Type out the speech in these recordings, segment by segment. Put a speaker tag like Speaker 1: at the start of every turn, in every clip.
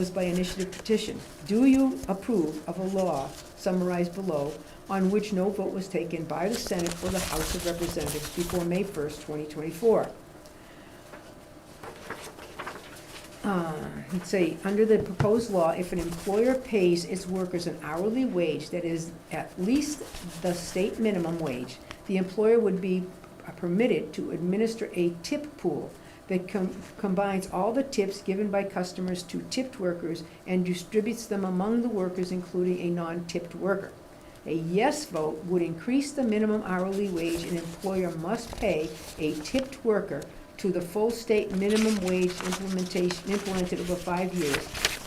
Speaker 1: was by initiative petition. Do you approve of a law summarized below on which no vote was taken by the Senate or the House of Representatives before May 1st, 2024? Uh, Let's see, under the proposed law, if an employer pays its workers an hourly wage that is at least the state minimum wage, the employer would be permitted to administer a tip pool that com- combines all the tips given by customers to tipped workers and distributes them among the workers, including a non-tipped worker. A yes vote would increase the minimum hourly wage an employer must pay a tipped worker to the full state minimum wage implementation, implemented over five years,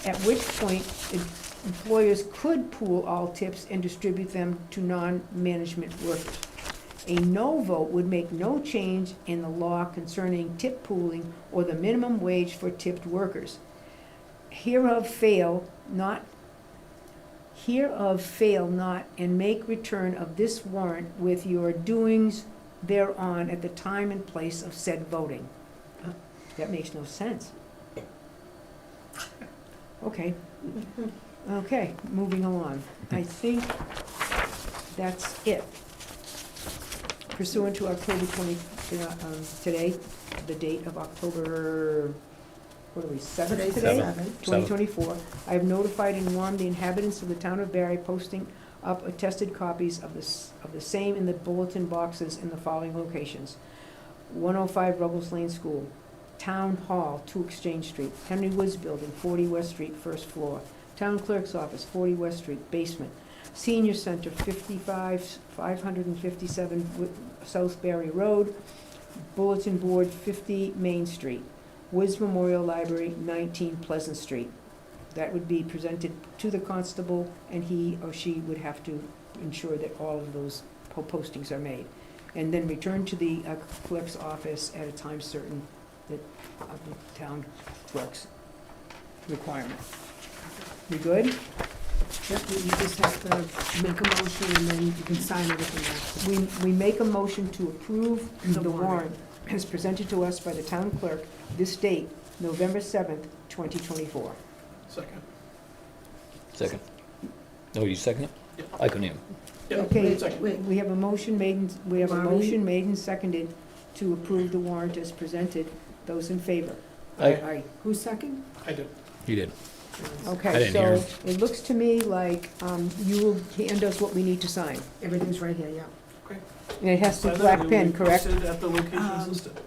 Speaker 1: at which point em- employers could pool all tips and distribute them to non-management workers. A no vote would make no change in the law concerning tip pooling or the minimum wage for tipped workers. Hereof fail not, hereof fail not, and make return of this warrant with your doings thereon at the time and place of said voting. That makes no sense. Okay, okay, moving along. I think that's it pursuant to October 20, uh, um, today, the date of October, what are we, 7th
Speaker 2: Today's
Speaker 1: today?
Speaker 2: seven.
Speaker 1: 2024. I have notified and warned the inhabitants of the town of Barry, posting up attested copies of this, of the same in the bulletin boxes in the following locations. 105 Ruggles Lane School, Town Hall, 2 Exchange Street, Henry Woods Building, 40 West Street, first floor, Town Clerk's Office, 40 West Street, basement, Senior Center, 55, 557 Wi- South Barry Road, Bulletin Board, 50 Main Street. Wiz Memorial Library, 19 Pleasant Street. That would be presented to the constable, and he or she would have to ensure that all of those po- postings are made. And then return to the uh, clerk's office at a time certain that, of the town clerk's requirement. We good?
Speaker 2: Yep, you you just have to make a motion and then you can sign everything
Speaker 1: We, we make a motion to approve
Speaker 2: The
Speaker 1: the
Speaker 2: warrant.
Speaker 1: warrant as presented to us by the town clerk this date, November 7th, 2024.
Speaker 3: Second.
Speaker 4: Second. Oh, you second it?
Speaker 3: Yeah.
Speaker 4: I couldn't hear.
Speaker 3: Yeah,
Speaker 1: Okay.
Speaker 3: second.
Speaker 2: Wait,
Speaker 1: We have a motion made, and- we have a
Speaker 2: Barbie?
Speaker 1: motion made and seconded to approve the warrant as presented. Those in favor?
Speaker 4: I-
Speaker 1: Aye.
Speaker 2: who's second?
Speaker 3: I did.
Speaker 4: You did.
Speaker 2: Oh.
Speaker 4: I
Speaker 1: Okay,
Speaker 4: didn't hear
Speaker 1: so it looks to me like um, you will hand us what we need to sign.
Speaker 2: Everything's right here, yeah.
Speaker 1: And it has to be black pen, correct?
Speaker 3: At the locations
Speaker 2: Um,
Speaker 3: listed.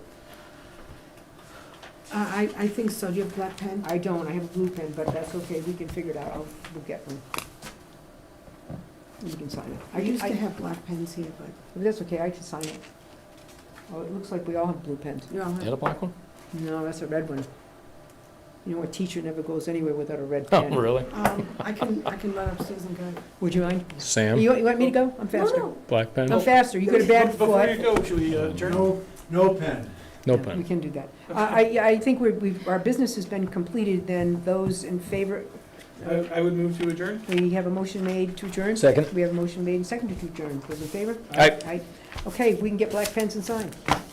Speaker 2: Uh, I, I think so, do you have black pen?
Speaker 1: I don't, I have a blue pen, but that's okay, we can figure it out. I'll, we'll get one. You can sign it.
Speaker 2: I used
Speaker 1: I-
Speaker 2: to have black pens here, but,
Speaker 1: That's okay, I can sign it. Oh, it looks like we all have blue pens.
Speaker 2: you know,
Speaker 4: You had a black one?
Speaker 1: No, that's a red one. You know, a teacher never goes anywhere without a red
Speaker 4: Oh,
Speaker 1: pen.
Speaker 4: really?
Speaker 2: um, I can, I can run upstairs and get it.
Speaker 1: Would you mind?
Speaker 4: Sam,
Speaker 1: You want, you want me to go? I'm faster.
Speaker 2: No,
Speaker 4: black
Speaker 1: I'm
Speaker 4: pen?
Speaker 1: faster. You got a bad
Speaker 3: Be- Before you
Speaker 1: foot.
Speaker 3: go, should we uh, adjourn?
Speaker 5: No, no pen.
Speaker 4: No
Speaker 1: We
Speaker 4: pen.
Speaker 1: can do that. I, I- I think we've- we've, our business has been completed, then those in favor,
Speaker 3: I I would move to adjourn.
Speaker 1: we have a motion made to adjourn?
Speaker 4: Second.
Speaker 1: We have a motion made and seconded to adjourn. Those in favor?
Speaker 4: Aye.
Speaker 1: Aye. Okay, we can get black pens and sign.